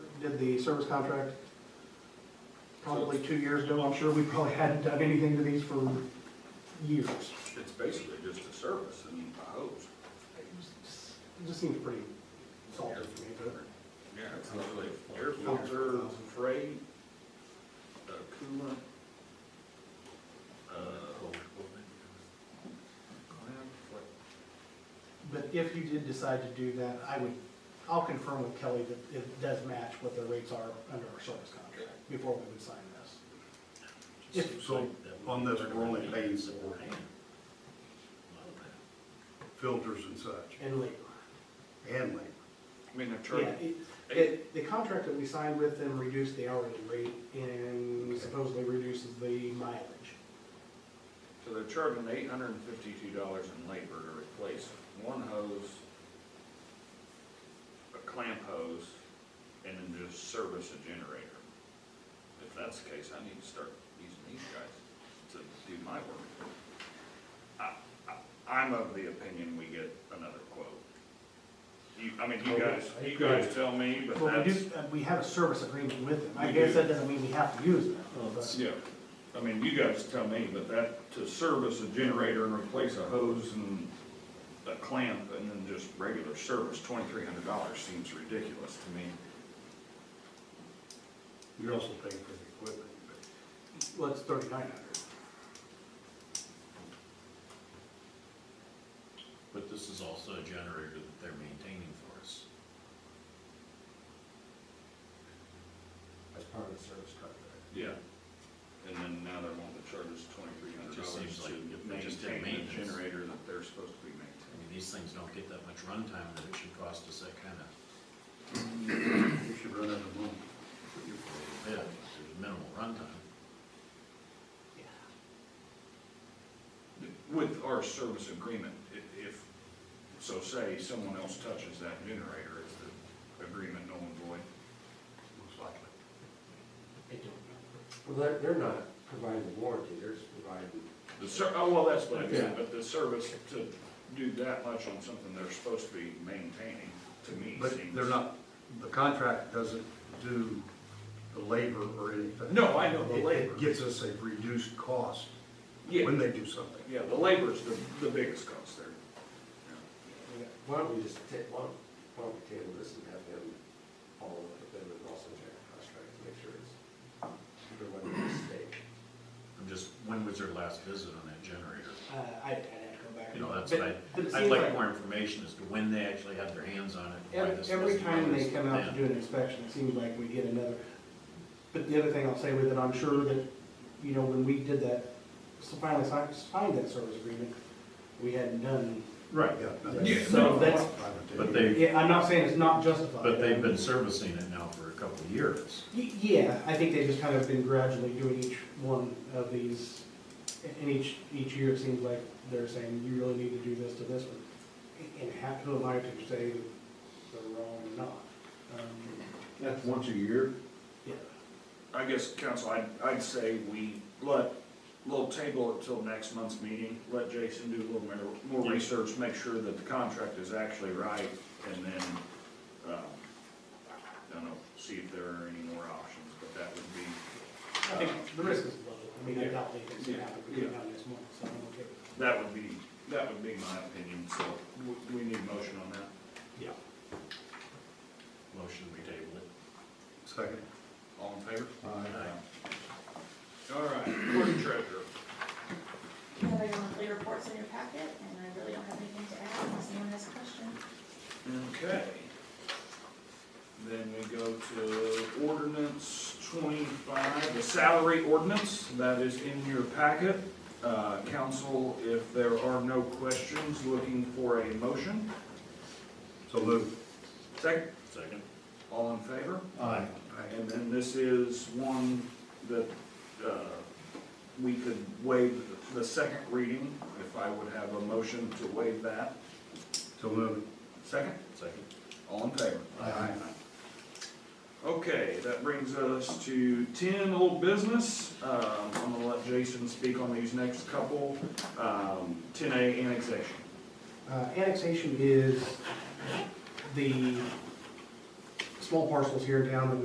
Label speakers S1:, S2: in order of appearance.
S1: did the service contract probably two years ago. I'm sure we probably hadn't done anything to these for years.
S2: It's basically just a service and a hose.
S1: It just- it just seems pretty salty to me, but
S2: Yeah, it's literally air filter, freight, uh, coolant. uh,
S1: But if you did decide to do that, I would, I'll confirm with Kelly that it does match what the rates are under our service contract before we would sign this. If-
S3: So on this, we're only paying for filters and such,
S1: And labor.
S3: and labor.
S2: I mean,
S1: Yeah,
S2: they're charging,
S1: it- it- the contract that we signed with them reduced the hourly rate and supposedly reduces the mileage.
S2: so they're charging eight hundred and fifty-two dollars in labor to replace one hose, a clamp hose, and then just service a generator. If that's the case, I need to start using these guys to do my work. I, I, I'm of the opinion we get another quote. You, I mean,
S1: Oh,
S2: you guys, you guys tell me, but
S1: Well, we
S2: that's.
S1: do, uh, we have a service agreement with them. I
S2: We
S1: guess
S2: do. Oh,
S1: that doesn't mean we have to use them. but-
S2: Yeah, I mean, you guys tell me, but that, to service a generator and replace a hose and a clamp and then just regular service, twenty-three hundred dollars seems ridiculous to me.
S3: You're also paying for the equipment, but
S1: Well, it's thirty-nine hundred.
S4: But this is also a generator that they're maintaining for us.
S5: as part of the service contract.
S2: Yeah. And then now they're wanting to charge us twenty-three hundred
S4: It just seems
S2: dollars to
S4: like just their
S2: maintain the
S4: maintenance.
S2: generator that they're supposed to be maintaining.
S4: I mean, these things don't get that much runtime that it should cost us that kind of,
S3: we should run out of money.
S4: yeah, there's minimal runtime.
S2: With our service agreement, i- if, so say someone else touches that generator, is the agreement null and void? Most likely.
S5: Well, they're, they're not providing the warranty, they're just providing,
S2: The ser, oh, well, that's what I mean, but the service to do that much on something they're supposed to be maintaining, to me, seems.
S3: But they're not, the contract doesn't do the labor or anything.
S2: No, I know the
S3: It-
S2: labor.
S3: It gets us a reduced cost
S2: Yeah,
S3: when they do something.
S2: yeah, the labor's the, the biggest cost there.
S5: why don't we just take, why don't, why don't we table this and have them follow up with them and also check the contract to make sure it's, there wasn't a mistake.
S4: I'm just, when was their last visit on that generator?
S1: Uh, I'd, I'd have to go back. and-
S4: You know, that's
S1: but-
S4: what I,
S1: but it
S4: I'd
S1: seems
S4: like more information as to when they actually had their hands on it. why
S1: Every,
S4: this
S1: every
S4: doesn't
S1: time they
S4: notice
S1: come out to
S4: then.
S1: do an inspection, it seems like we get another. But the other thing I'll say with it, I'm sure that, you know, when we did that, so finally signed, signed that service agreement, we hadn't done.
S3: Right. Yeah. no, that's-
S2: Yeah,
S1: So that's,
S4: But they,
S1: yeah, I'm not saying it's not justified.
S4: but they've been servicing it now for a couple of years.
S1: Y- Yeah, I think they've just kind of been gradually doing each one of these, and each, each year it seems like they're saying, you really need to do this to this one. And how, who am I to say they're wrong or not? Um,
S6: That's once a year?
S1: Yeah,
S2: I guess, council, I'd, I'd say we let, little table it till next month's meeting, let Jason do a little more, more research, make sure that the contract is actually right, and then, um, I don't know, see if there are any more options, but that would be,
S1: I think the risk is low, I mean, I doubt anything's gonna happen
S2: Yeah.
S1: between now and next month, so I'm okay with that.
S2: That would be, that would be my opinion, so w- do we need a motion on that?
S1: Yeah.
S4: Motion, we table it.
S3: Second.
S2: All in favor?
S4: Aye.
S2: All right, court treasurer.
S7: You have your monthly reports in your packet, and I really don't have anything to add unless anyone has questions.
S2: Okay. Then we go to ordinance twenty-five, the salary ordinance, that is in your packet. Uh, council, if there are no questions, looking for a motion.
S3: So move.
S2: Second,
S4: Second.
S2: all in favor?
S6: Aye.
S2: And then this is one that uh, we could waive the second reading, if I would have a motion to waive that.
S3: So move.
S2: Second,
S4: Second.
S2: all in favor?
S3: Aye.
S2: Okay, that brings us to ten, old business. Um, I'm gonna let Jason speak on these next couple. Um, Ten A annexation.
S1: Uh, annexation is the small parcels here in town that